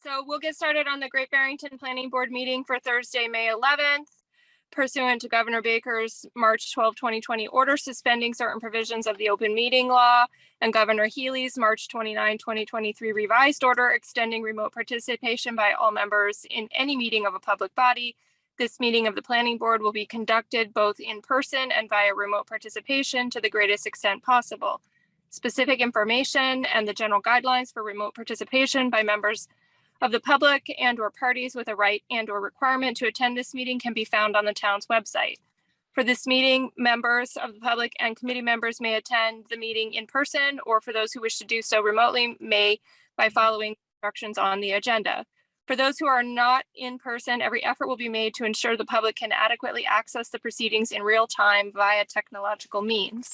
So we'll get started on the Great Barrington Planning Board meeting for Thursday, May 11th pursuant to Governor Baker's March 12, 2020 order suspending certain provisions of the open meeting law and Governor Healy's March 29, 2023 revised order extending remote participation by all members in any meeting of a public body. This meeting of the planning board will be conducted both in person and via remote participation to the greatest extent possible specific information and the general guidelines for remote participation by members of the public and or parties with a right and or requirement to attend this meeting can be found on the town's website. For this meeting, members of the public and committee members may attend the meeting in person, or for those who wish to do so remotely, may by following instructions on the agenda. For those who are not in person, every effort will be made to ensure the public can adequately access the proceedings in real time via technological means.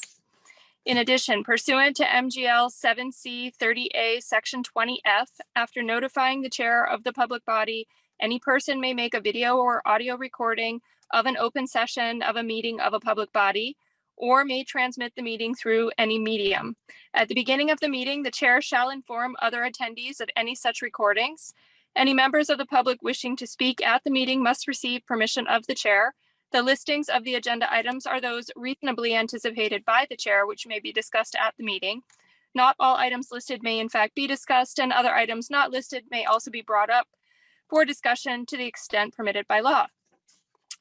In addition, pursuant to MGL 7C 30A, Section 20F, after notifying the chair of the public body, any person may make a video or audio recording of an open session of a meeting of a public body or may transmit the meeting through any medium. At the beginning of the meeting, the chair shall inform other attendees of any such recordings. Any members of the public wishing to speak at the meeting must receive permission of the chair. The listings of the agenda items are those reasonably anticipated by the chair, which may be discussed at the meeting. Not all items listed may in fact be discussed, and other items not listed may also be brought up for discussion to the extent permitted by law.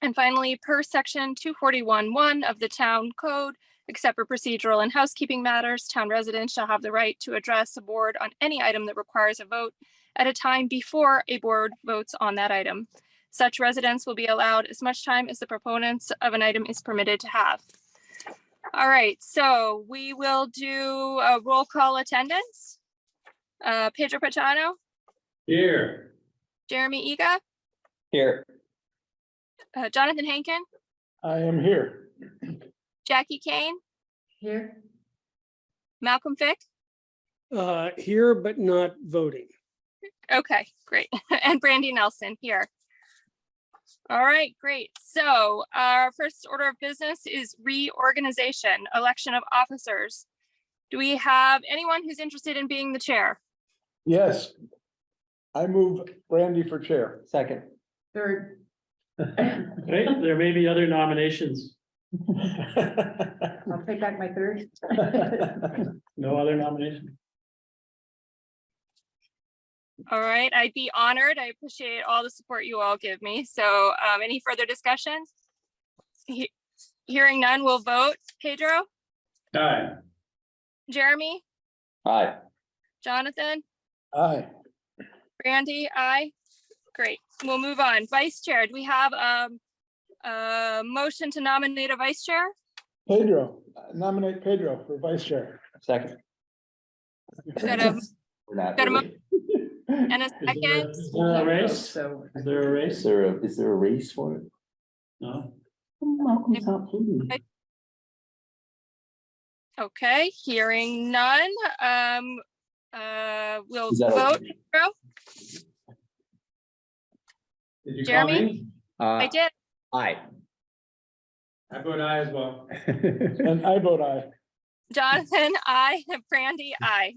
And finally, per section 241-1 of the town code, except for procedural and housekeeping matters, town residents shall have the right to address the board on any item that requires a vote at a time before a board votes on that item. Such residents will be allowed as much time as the proponents of an item is permitted to have. All right, so we will do a roll call attendance. Uh, Pedro Pachano, Here. Jeremy Ega, Here. uh, Jonathan Hankin, I am here. Jackie Kane, Here, Malcolm Fick. Uh, here, but not voting. Okay, great. And Brandy Nelson here. All right, great. So our first order of business is reorganization, election of officers. Do we have anyone who's interested in being the chair? Yes. I move Brandy for chair. Second. third, Right, there may be other nominations. I'll take back my third. No other nomination? All right, I'd be honored. I appreciate all the support you all give me. So um, any further discussion? He- Hearing none, we'll vote. Pedro, Aye. Jeremy, Aye. Jonathan, Aye. Brandy, aye. Great, we'll move on. Vice Chair, do we have um, a motion to nominate a vice chair? Pedro, nominate Pedro for vice chair. Second. Got a- We're not Got a mo- really- And a Is there- second, Is there a Uh, race? So. Is there a Is race? there a, is there a race for it? No. Malcolm's not voting. okay, hearing none. Um, uh, We'll Is that vote. okay? Did you call Jeremy? me? I Uh, did, aye. I vote aye as well. And I vote aye. Jonathan, aye. Brandy, aye.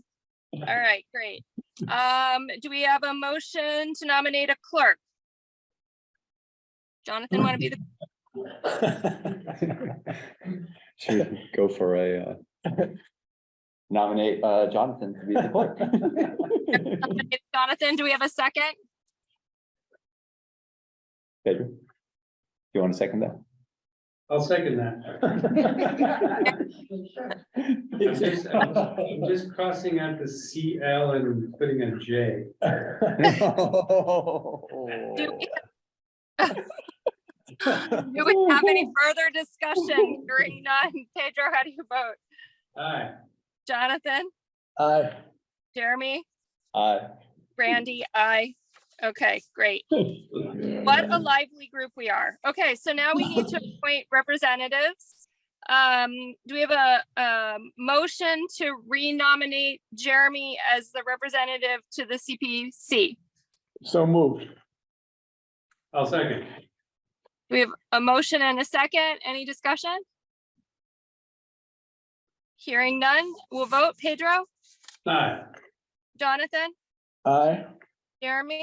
All right, great. Um, do we have a motion to nominate a clerk? Jonathan, want to be the, Should we go for a, uh, nominate, uh, Jonathan to be the clerk. Jonathan, do we have a second? Pedro? You want to second that? I'll second that. I'm just, I'm I'm just crossing out the CL and putting a J. Do we Do we have any further discussion? Hearing none. Pedro, how do you vote? Aye. Jonathan, Aye. Jeremy, Aye. Brandy, I. Okay, great. What a lively group we are. Okay, so now we need to appoint representatives. Um, do we have a, a motion to renominate Jeremy as the representative to the CPC? So moved. I'll second. We have a motion and a second. Any discussion? Hearing none, we'll vote. Pedro, Aye. Jonathan, Aye. Jeremy?